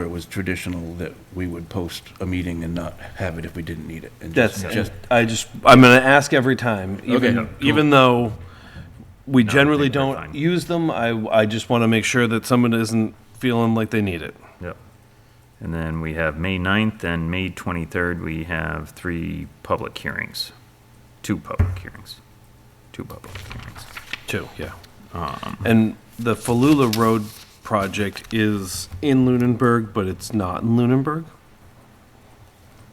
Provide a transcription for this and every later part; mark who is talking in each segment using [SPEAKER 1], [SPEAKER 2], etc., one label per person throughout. [SPEAKER 1] where it was traditional that we would post a meeting and not have it if we didn't need it. and
[SPEAKER 2] That's
[SPEAKER 1] just
[SPEAKER 2] just,
[SPEAKER 1] just
[SPEAKER 2] I just, I'm going to ask every time, even,
[SPEAKER 1] Okay.
[SPEAKER 2] even though we generally
[SPEAKER 3] think we're
[SPEAKER 2] don't
[SPEAKER 3] fine.
[SPEAKER 2] use them, I, I just want to make sure that someone isn't feeling like they need it.
[SPEAKER 3] Yep. And then we have May 9th and May 23rd, we have three public hearings. Two public hearings. Two public hearings.
[SPEAKER 2] Two, yeah. Um, And the Falula Road project is in Lunenburg, but it's not in Lunenburg.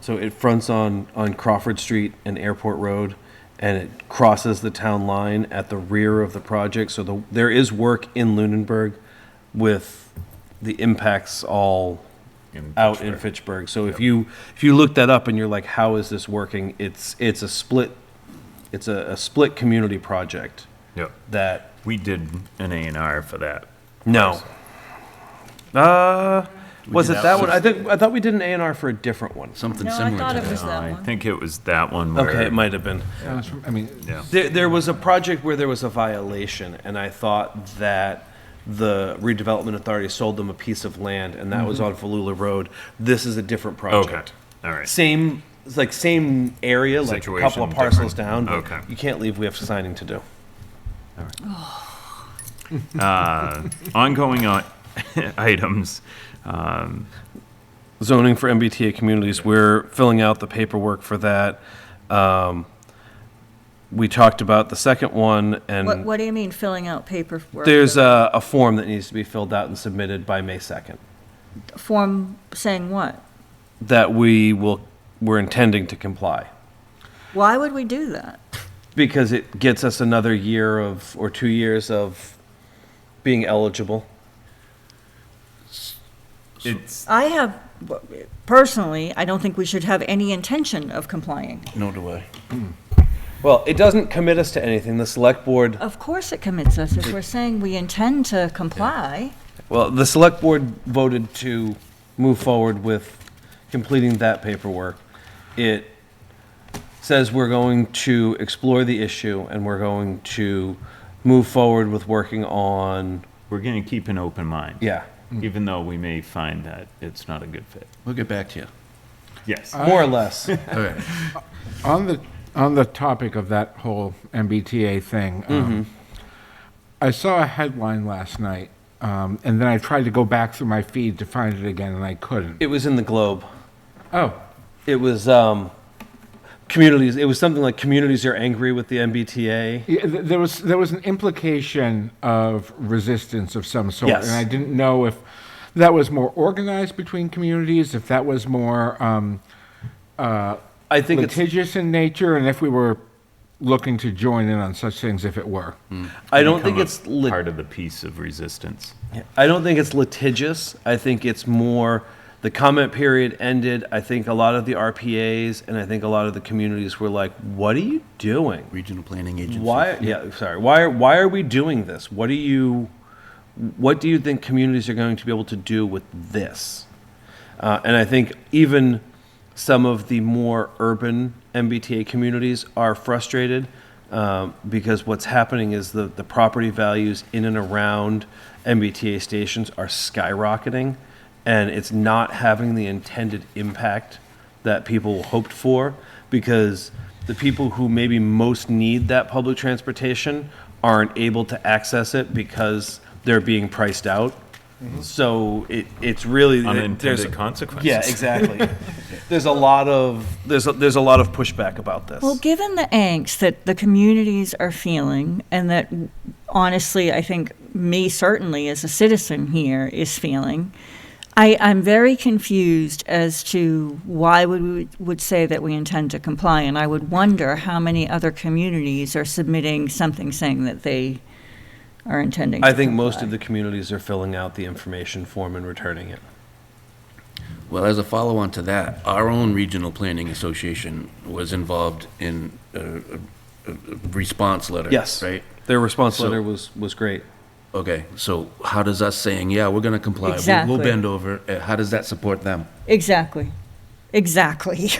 [SPEAKER 2] So it fronts on, on Crawford Street and Airport Road, and it crosses the town line at the rear of the project. So the, there is work in Lunenburg with the impacts all
[SPEAKER 3] In
[SPEAKER 2] out in Fitchburg. So if you, if you look that up and you're like, how is this working? It's, it's a split, it's a, a split community project
[SPEAKER 3] Yep.
[SPEAKER 2] that
[SPEAKER 3] We did an A and R for that.
[SPEAKER 2] no. Uh, was it that one? I think, I thought we did an A and R for a different one.
[SPEAKER 1] something
[SPEAKER 4] No, I
[SPEAKER 1] similar
[SPEAKER 4] thought
[SPEAKER 1] to
[SPEAKER 4] it
[SPEAKER 1] that.
[SPEAKER 4] was that
[SPEAKER 3] I
[SPEAKER 4] one.
[SPEAKER 3] think it was that one where.
[SPEAKER 2] Okay, it might have been.
[SPEAKER 5] Sounds from- I mean,
[SPEAKER 3] Yeah.
[SPEAKER 2] There, there was a project where there was a violation, and I thought that the redevelopment authority sold them a piece of land, and that was on Falula Road. This is a different
[SPEAKER 3] Mm-hmm. Okay,
[SPEAKER 2] project.
[SPEAKER 3] all right.
[SPEAKER 2] Same, it's like same area, like a couple
[SPEAKER 3] Situation
[SPEAKER 2] of parcels down.
[SPEAKER 3] different.
[SPEAKER 2] but
[SPEAKER 3] Okay.
[SPEAKER 2] You can't leave, we have signing to do.
[SPEAKER 3] Ongoing on- items. Um,
[SPEAKER 2] zoning for MBTA communities. We're filling out the paperwork for that. Um, We talked about the second one,
[SPEAKER 4] What,
[SPEAKER 2] and
[SPEAKER 4] what do you mean filling out paperwork?
[SPEAKER 2] there's a, a form that needs to be filled out and submitted by May 2nd
[SPEAKER 4] Form saying what?
[SPEAKER 2] that we will, we're intending to comply.
[SPEAKER 4] Why would we do that?
[SPEAKER 2] Because it gets us another year of, or two years of being eligible.
[SPEAKER 3] It's,
[SPEAKER 4] I have, personally, I don't think we should have any intention of complying.
[SPEAKER 1] No do I.
[SPEAKER 2] Well, it doesn't commit us to anything. The select board,
[SPEAKER 4] Of course it commits us. If we're saying we intend to comply,
[SPEAKER 2] well, the select board voted to move forward with completing that paperwork. It says we're going to explore the issue and we're going to move forward with working on,
[SPEAKER 3] we're gonna keep an open mind.
[SPEAKER 2] yeah,
[SPEAKER 3] Even though we may find that it's not a good fit.
[SPEAKER 1] We'll get back to you.
[SPEAKER 3] Yes.
[SPEAKER 2] more or less.
[SPEAKER 1] All right.
[SPEAKER 5] on the, on the topic of that whole MBTA thing, um,
[SPEAKER 2] Mm-hmm.
[SPEAKER 5] I saw a headline last night, um, and then I tried to go back through my feed to find it again, and I couldn't.
[SPEAKER 2] It was in the Globe.
[SPEAKER 5] Oh,
[SPEAKER 2] It was, um, communities, it was something like communities are angry with the MBTA.
[SPEAKER 5] yeah, th- there was, there was an implication of resistance of some sort.
[SPEAKER 2] Yes.
[SPEAKER 5] And I didn't know if that was more organized between communities, if that was more um,
[SPEAKER 2] I think it's,
[SPEAKER 5] litigious in nature, and if we were looking to join in on such things if it were.
[SPEAKER 2] I don't think
[SPEAKER 3] Become a
[SPEAKER 2] it's lit-
[SPEAKER 3] Part of the piece of resistance.
[SPEAKER 2] I don't think it's litigious. I think it's more the comment period ended. I think a lot of the RPAs and I think a lot of the communities were like, "What are you doing?
[SPEAKER 1] Regional Planning Agency.
[SPEAKER 2] Why? Yeah, sorry. Why? are- Why are we doing this? What do you? What do you think communities are going to be able to do with this?" Uh, and I think even some of the more urban MBTA communities are frustrated um, because what's happening is the, the property values in and around MBTA stations are skyrocketing, and it's not having the intended impact that people hoped for because the people who maybe most need that public transportation aren't able to access it because they're being priced out. So it, it's really there's
[SPEAKER 3] Unintended consequences.
[SPEAKER 2] yeah, exactly. there's a lot of there's a, there's a lot of pushback about this.
[SPEAKER 4] Well, given the angst that the communities are feeling, and that honestly, I think me certainly as a citizen here is feeling, I, I'm very confused as to why would we would say that we intend to comply, and I would wonder how many other communities are submitting something saying that they are intending.
[SPEAKER 2] I
[SPEAKER 4] to
[SPEAKER 2] think most of
[SPEAKER 4] comply.
[SPEAKER 2] the communities are filling out the information form and returning it.
[SPEAKER 1] Well, as a follow-on to that, our own Regional Planning Association was involved in a, a- a response letter.
[SPEAKER 2] Yes,
[SPEAKER 1] Right?
[SPEAKER 2] Their response
[SPEAKER 1] So-
[SPEAKER 2] letter was was great.
[SPEAKER 1] Okay, so how does us saying, yeah, we're gonna comply, we'll-
[SPEAKER 4] Exactly.
[SPEAKER 1] we'll bend over, uh, how does that support them?
[SPEAKER 4] exactly, exactly.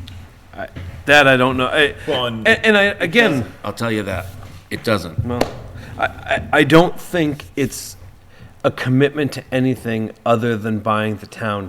[SPEAKER 2] That I don't know. I,
[SPEAKER 3] Well,
[SPEAKER 2] and,
[SPEAKER 3] and-
[SPEAKER 2] and I again.
[SPEAKER 1] I'll tell you that, it doesn't.
[SPEAKER 2] Well, I, I, I don't think it's, a commitment to anything other than buying the town